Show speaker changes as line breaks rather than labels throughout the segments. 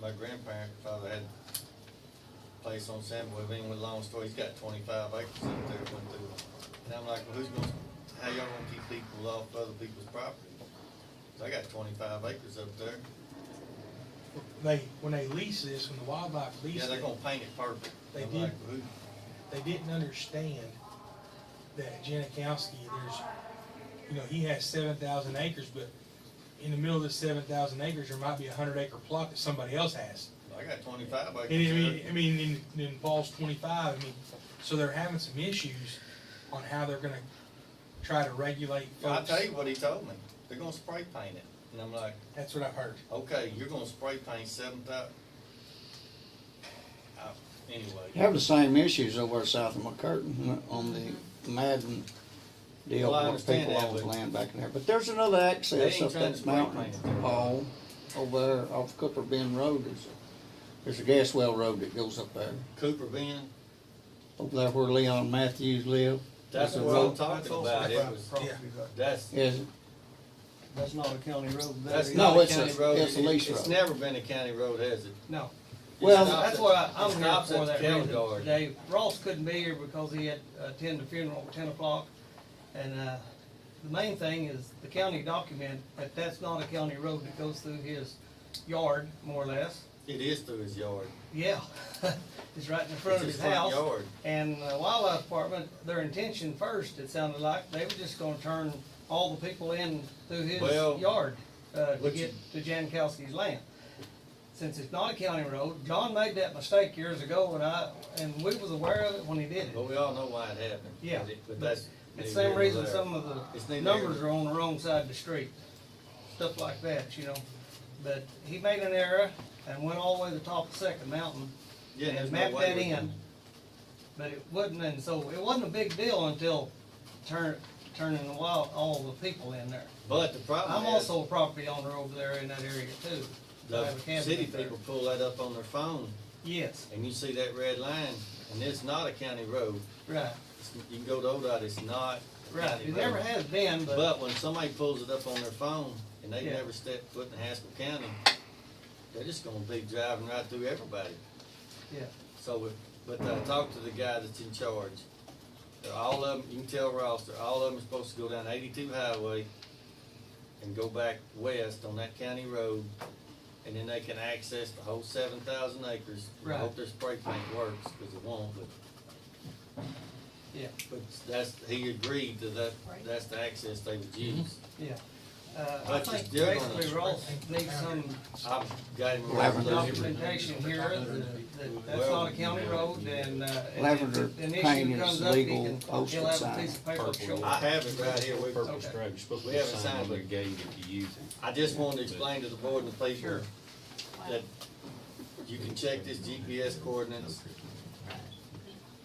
my grandparent, father had a place on Sandwood, been with Long Story, he's got twenty-five acres up there, went through. And I'm like, well, who's gonna, how y'all gonna keep people off other people's property? 'Cause I got twenty-five acres up there,
They, when they leased this, when the wildlife
yeah,
leased
they're
it,
gonna paint it purple.
They
I'm like, "Who?"
did. they didn't understand that Janikowski, there's, you know, he has seven thousand acres, but in the middle of the seven thousand acres, there might be a hundred acre plot that somebody else has.
I got twenty-five
And I mean,
acres
I mean, in, in Falls twenty-five, I mean, so they're having some issues on how they're gonna try to regulate
there. I
folks.
tell you what he told me, they're gonna spray paint it, and I'm like,
That's what I've heard.
okay, you're gonna spray paint seven thou- Uh, Anyway.
Have the same issues over at south of McCurtain on the Madden deal,
Well, I
where
understand
people
that,
owns
but-
land back in there. But there's another access
ain't
up
trying to
that
spray
mountain,
paint it.
Paul, over there off Cooper Bend Road. There's a, there's a gas well road that goes up there,
Cooper Bend,
over there where Leon Matthews live.
that's
There's a
what I'm
road.
talking about, it was,
property,
that's,
Is, it?
That's not a county road. that
that's
is.
No,
not a
it's a-
county road.
it's a
It-
lease
It's
road.
never been a county road, has it?
No.
Well-
That's why I'm the
not
opposite
for
of the
that
cattle
reason
guard.
today. Ross couldn't be here because he had to attend the funeral at ten o'clock. And, uh, the main thing is the county document, that that's not a county road that goes through his yard, more or less.
It is through his yard.
Yeah, it's right in front
It's
of
his
his
front
house.
yard.
And the wildlife department, their intention first, it sounded like, they were just gonna turn all the people in through his
Well,
yard, uh, to
what
get to Jankowski's land. Since it's not a county road, John made that mistake years ago, and I, and we was aware of it when he did it.
But we all know why it happened.
Yeah,
But it- But
but
that's. neither
It's the same
here nor
reason
there.
some of
It's
the
neither
numbers
here.
are on the wrong side of the street, stuff like that, you know. But he made an error and went all the way to the top of Second Mountain
Yeah, there's
and
no
mapped
way
that
we
in.
can-
But it wasn't, and so it wasn't a big deal until turn, turning the wild, all the people in there.
But the problem
I'm
is,
also a property owner over there in that area too. I have a
the
cabin
city
up there.
people pull that up on their phone,
Yes,
and you see that red line, and it's not a county road.
right,
It's- You can go to ODOT, it's not a
right.
county
It
road.
never has been, but,
But when somebody pulls it up on their phone and they've
Yeah.
never stepped foot in Haskell County, they're just gonna be driving right through everybody.
yeah,
So, it- but I talked to the guy that's in charge. They're all of them, you can tell Ross, they're all of them are supposed to go down eighty-two highway and go back west on that county road. And then they can access the whole seven thousand acres. I hope
Right.
their spray paint works, cause it won't, but
yeah.
But that's, he agreed to that, that's the access they would use.
Yeah, uh, I
But it's
think
still gonna-
basically Ross needs some
I've got him.
Lavender.
documentation here that, that that's
Well-
not a county road and, uh. and if
Lavender
an issue
paint is
comes up, he
legal
can-
posted
he'll have a
sign.
piece of paper to show.
I have it right here, we,
Purple
Okay.
stripe, you're supposed
We
to put a
haven't
sign
signed
on the
it.
gate if you use it.
I just wanted to explain to the board and the people
Sure.
that you can check this GPS coordinates.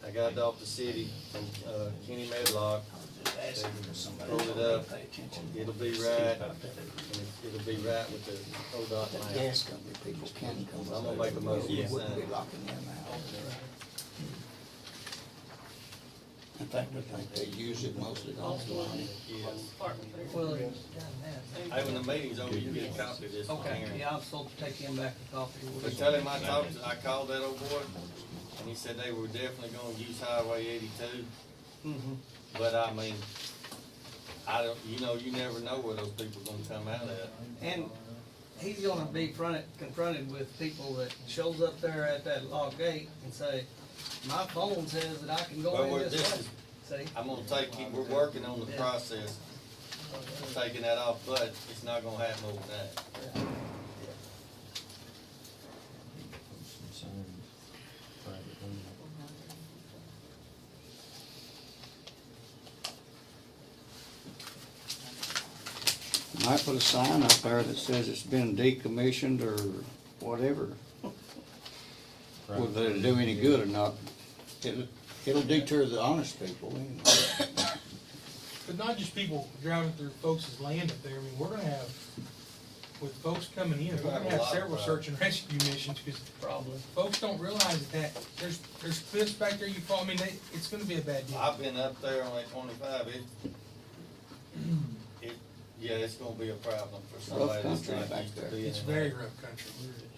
I got it off the city from, uh, Kenny Medlock, pulled it up, it'll be right, and it- it'll be right with the ODOT map.
Gas company people can come
I'm
up.
gonna make a motion.
We
Yes.
wouldn't be locking them out. In fact, I think they use it mostly on the line.
Yes.
Well, it's done
Hey, when the meeting's over, you get a copy of this
that.
one
Okay,
here.
yeah, I'm supposed to take him back a copy. We'll
But
just-
tell him I talked, to- I called that old boy, and he said they were definitely gonna use Highway eighty-two,
Mhm.
but I mean, I don't, you know, you never know where those people gonna come out at.
And he's gonna be fronted, confronted with people that shows up there at that log gate and say, my phone says that I can go
Well, we're,
in
this
this
is,
way. See?
I'm gonna take, it- we're working on the
Yeah.
process, of taking that off, but it's not gonna happen overnight.
Might put a sign up there that says it's been decommissioned or whatever, whether it'll do any good or not. It'll, it'll deter the honest people anyway.
But not just people driving through folks' land up there, I mean, we're gonna have, with folks coming in, we're gonna have several search and rescue missions, because
Probably.
folks don't realize that there's, there's cliffs back there, you fall, I mean, they, it's gonna be a bad deal.
I've been up there on that twenty-five, it, it, yeah, it's gonna be a problem for somebody that's
country
not
back
used to
there.
being.
It's
in
very
that.
rough country.